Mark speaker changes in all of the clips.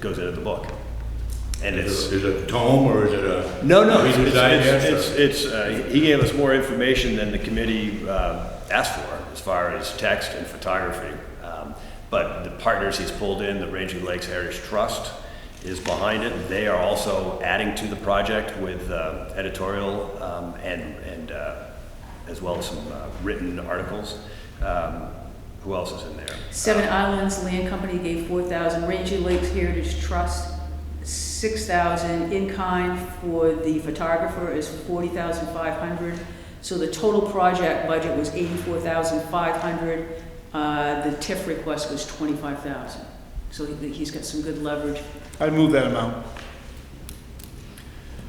Speaker 1: goes into the book. And it's,
Speaker 2: Is it a tome or is it a?
Speaker 1: no, no, it's,
Speaker 2: Reader's Digest,
Speaker 1: it's,
Speaker 2: or-
Speaker 1: it's, it's, uh, he gave us more information than the committee, uh, asked for as far as text and photography. Um, But the partners he's pulled in, the Raging Lakes Heritage Trust is behind it. They are also adding to the project with, uh, editorial, um, and, and, uh, as well as some, uh, written articles. Um, Who else is in there?
Speaker 3: Seven Islands Land Company gave four thousand, Ranger Lakes Heritage Trust, six thousand, in kind for the photographer is forty thousand five hundred. So the total project budget was eighty-four thousand five hundred, uh, the TIF request was twenty-five thousand. So he- he's got some good leverage.
Speaker 4: I move that amount.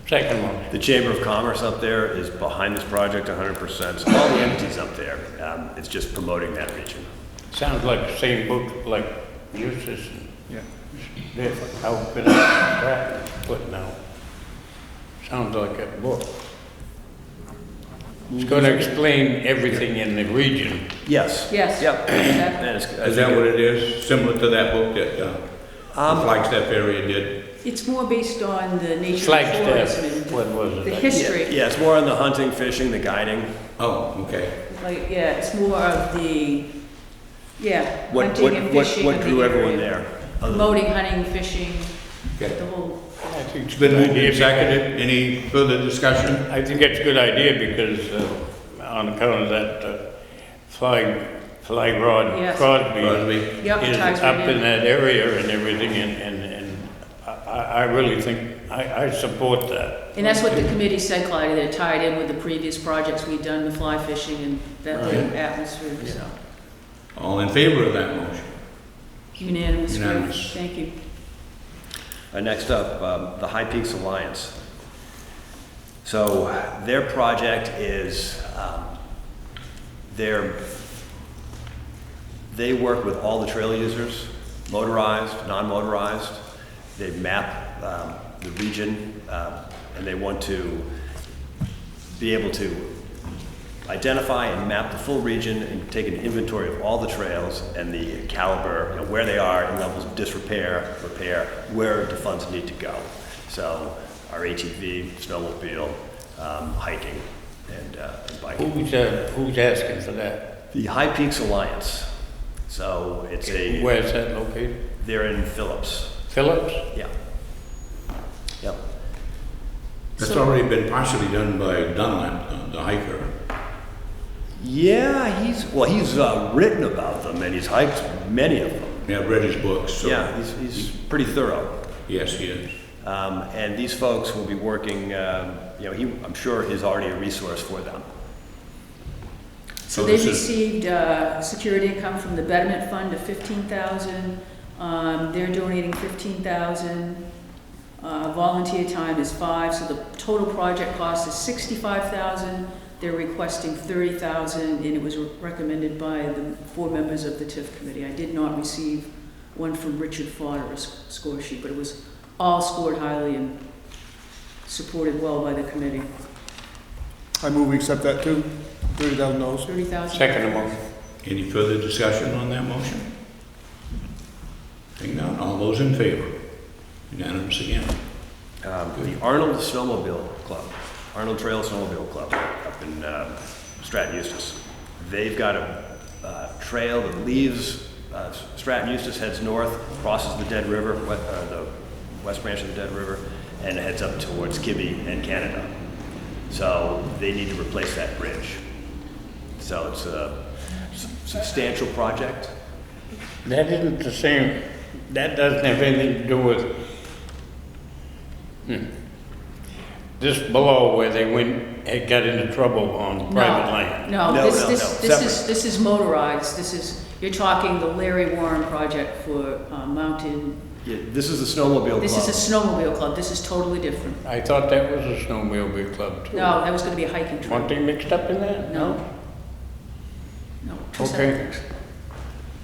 Speaker 5: Second one.
Speaker 1: The Chamber of Commerce up there is behind this project 100%, so all the entities up there, um, it's just promoting that region.
Speaker 5: Sounds like the same book like Eustace and
Speaker 4: Yeah.
Speaker 5: Diffin. How could I crack foot now? Sounds like a book. It's going to explain everything in the region.
Speaker 1: Yes.
Speaker 3: Yes.
Speaker 1: Yep.
Speaker 3: Exactly.
Speaker 1: And it's- I
Speaker 2: Is that
Speaker 1: think-
Speaker 2: what it is? Similar to that book that uh,
Speaker 1: Um,
Speaker 2: the Flagstaff area did?
Speaker 3: It's more based on the nature of tourism
Speaker 5: Flagstaff,
Speaker 3: and
Speaker 5: what was
Speaker 3: the
Speaker 5: it?
Speaker 3: history.
Speaker 1: Yeah, it's more on the hunting, fishing, the guiding.
Speaker 2: Oh, okay.
Speaker 3: Like, yeah, it's more of the, yeah,
Speaker 1: What-
Speaker 3: hunting
Speaker 1: what-
Speaker 3: and
Speaker 1: what-
Speaker 3: fishing.
Speaker 1: What
Speaker 3: in the
Speaker 1: drew everyone
Speaker 3: area.
Speaker 1: there? other than-
Speaker 3: Promoting hunting, fishing,
Speaker 2: Okay.
Speaker 3: the whole,
Speaker 5: I think it's a
Speaker 2: Then
Speaker 5: good
Speaker 2: moved
Speaker 5: idea
Speaker 2: and
Speaker 5: because-
Speaker 2: seconded. Any further discussion?
Speaker 5: I think it's a good idea because uh, on account of that uh, fly, fly rod
Speaker 3: Yes.
Speaker 5: Crosby.
Speaker 2: Crosby.
Speaker 3: Yep,
Speaker 5: Is
Speaker 3: ties right
Speaker 5: up
Speaker 3: in.
Speaker 5: in that area and everything and, and, and I, I I really think, I, I support that.
Speaker 3: and that's what the committee said, Clyde, that it tied in with the previous projects we'd done, with fly fishing and that whole
Speaker 2: Right.
Speaker 3: atmosphere, so.
Speaker 2: All in favor of that motion?
Speaker 3: Unanimous, great.
Speaker 2: Unanimous.
Speaker 3: thank you.
Speaker 1: Uh, Next up, um, the High Peaks Alliance. So their project is, um, they're, they work with all the trail users, motorized, non-motorized. They map um, the region, um, and they want to be able to identify and map the full region and take an inventory of all the trails and the caliber, you know, where they are in levels of disrepair, repair, where the funds need to go. So our ATV, snowmobile, um, hiking, and uh, and biking.
Speaker 5: Who's, uh, who's asking for that?
Speaker 1: The High Peaks Alliance. So it's a,
Speaker 5: Where's that located?
Speaker 1: they're in Phillips.
Speaker 5: Phillips?
Speaker 1: Yeah. Yep.
Speaker 2: That's
Speaker 3: So-
Speaker 2: already been partially done by Dunlap, uh, the hiker.
Speaker 1: Yeah, he's, well, he's uh, written about them and he's hiked many of them.
Speaker 2: Yeah, I've read his books, so.
Speaker 1: Yeah, he's, he's pretty thorough.
Speaker 2: Yes, he is.
Speaker 1: Um, And these folks will be working, um, you know, he, I'm sure is already a resource for them.
Speaker 3: So
Speaker 2: So
Speaker 3: they
Speaker 2: this is-
Speaker 3: received uh, security income from the Betterment Fund of fifteen thousand. Um, They're donating fifteen thousand. Uh, Volunteer time is five, so the total project cost is sixty-five thousand. They're requesting thirty thousand, and it was recommended by the four members of the TIF committee. I did not receive one from Richard Fodder, a s- score sheet, but it was all scored highly and supported well by the committee.
Speaker 4: I move we accept that too. Thirty thousand dollars.
Speaker 3: Thirty thousand?
Speaker 5: Second motion.
Speaker 2: Any further discussion on that motion? Seeing none, all those in favor? Unanimous again.
Speaker 1: Um, The Arnold Snowmobile Club, Arnold Trail Snowmobile Club up in um, Stratton Eustace. They've got a uh, trail that leaves uh, Stratton Eustace, heads north, crosses the Dead River, we- uh, the west branch of the Dead River, and heads up towards Kibbe and Canada. So they need to replace that bridge. So it's a s- substantial project.
Speaker 5: That isn't the same, that doesn't have anything to do with, hmm. This below where they went, it got into trouble on private land.
Speaker 3: No,
Speaker 1: No,
Speaker 3: this,
Speaker 1: no,
Speaker 3: this,
Speaker 1: no,
Speaker 3: this is, this is motorized, this is, you're talking the Larry Warren project for uh, mountain,
Speaker 1: Yeah, This is the snowmobile club.
Speaker 3: this is a snowmobile club, this is totally different.
Speaker 5: I thought that was a snowmobile club too.
Speaker 3: No, that was gonna be a hiking trail.
Speaker 5: Weren't they mixed up in that?
Speaker 3: No. No, two separate
Speaker 5: Okay.
Speaker 3: things.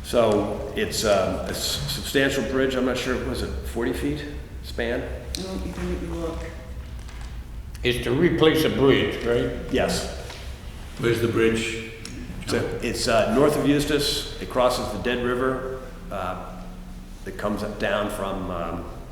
Speaker 1: So it's um, a s- substantial bridge, I'm not sure, was it 40 feet span?
Speaker 3: No, you can make me look.
Speaker 5: It's to replace a bridge, right?
Speaker 1: Yes.
Speaker 2: Where's the bridge?
Speaker 1: So it's uh, north of Eustis, it crosses the Dead River, uh, that comes up down from, um,